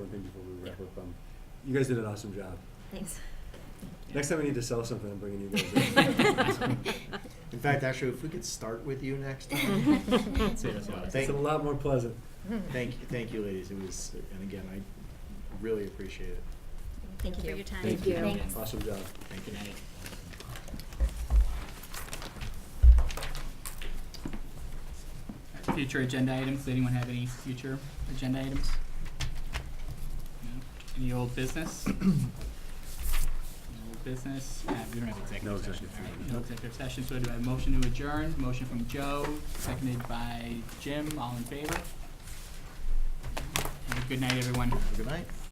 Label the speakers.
Speaker 1: thing before we wrap
Speaker 2: Yeah.
Speaker 1: up. Um, You guys did an awesome job.
Speaker 3: Thanks.
Speaker 1: Next time we need to sell something, I'm bringing you guys in.
Speaker 4: In fact, actually, if we could start with you next time.
Speaker 1: It's a lot more pleasant.
Speaker 4: Thank you, thank you, ladies. It was, and again, I really appreciate it.
Speaker 3: Thank you for
Speaker 5: you.
Speaker 3: your time.
Speaker 1: Thank
Speaker 5: you.
Speaker 3: Thanks.
Speaker 1: Awesome job.
Speaker 4: Thank you.
Speaker 2: Future agenda items, Does anyone have any future agenda items? No? Any old business? No Old business, Uh, we don't have
Speaker 1: No executive
Speaker 2: executive session. All right,
Speaker 1: session.
Speaker 2: No executive session, so do I have a motion to adjourn? Motion from Joe, seconded by Jim, all in favor? And good night, everyone.
Speaker 4: Have a good night.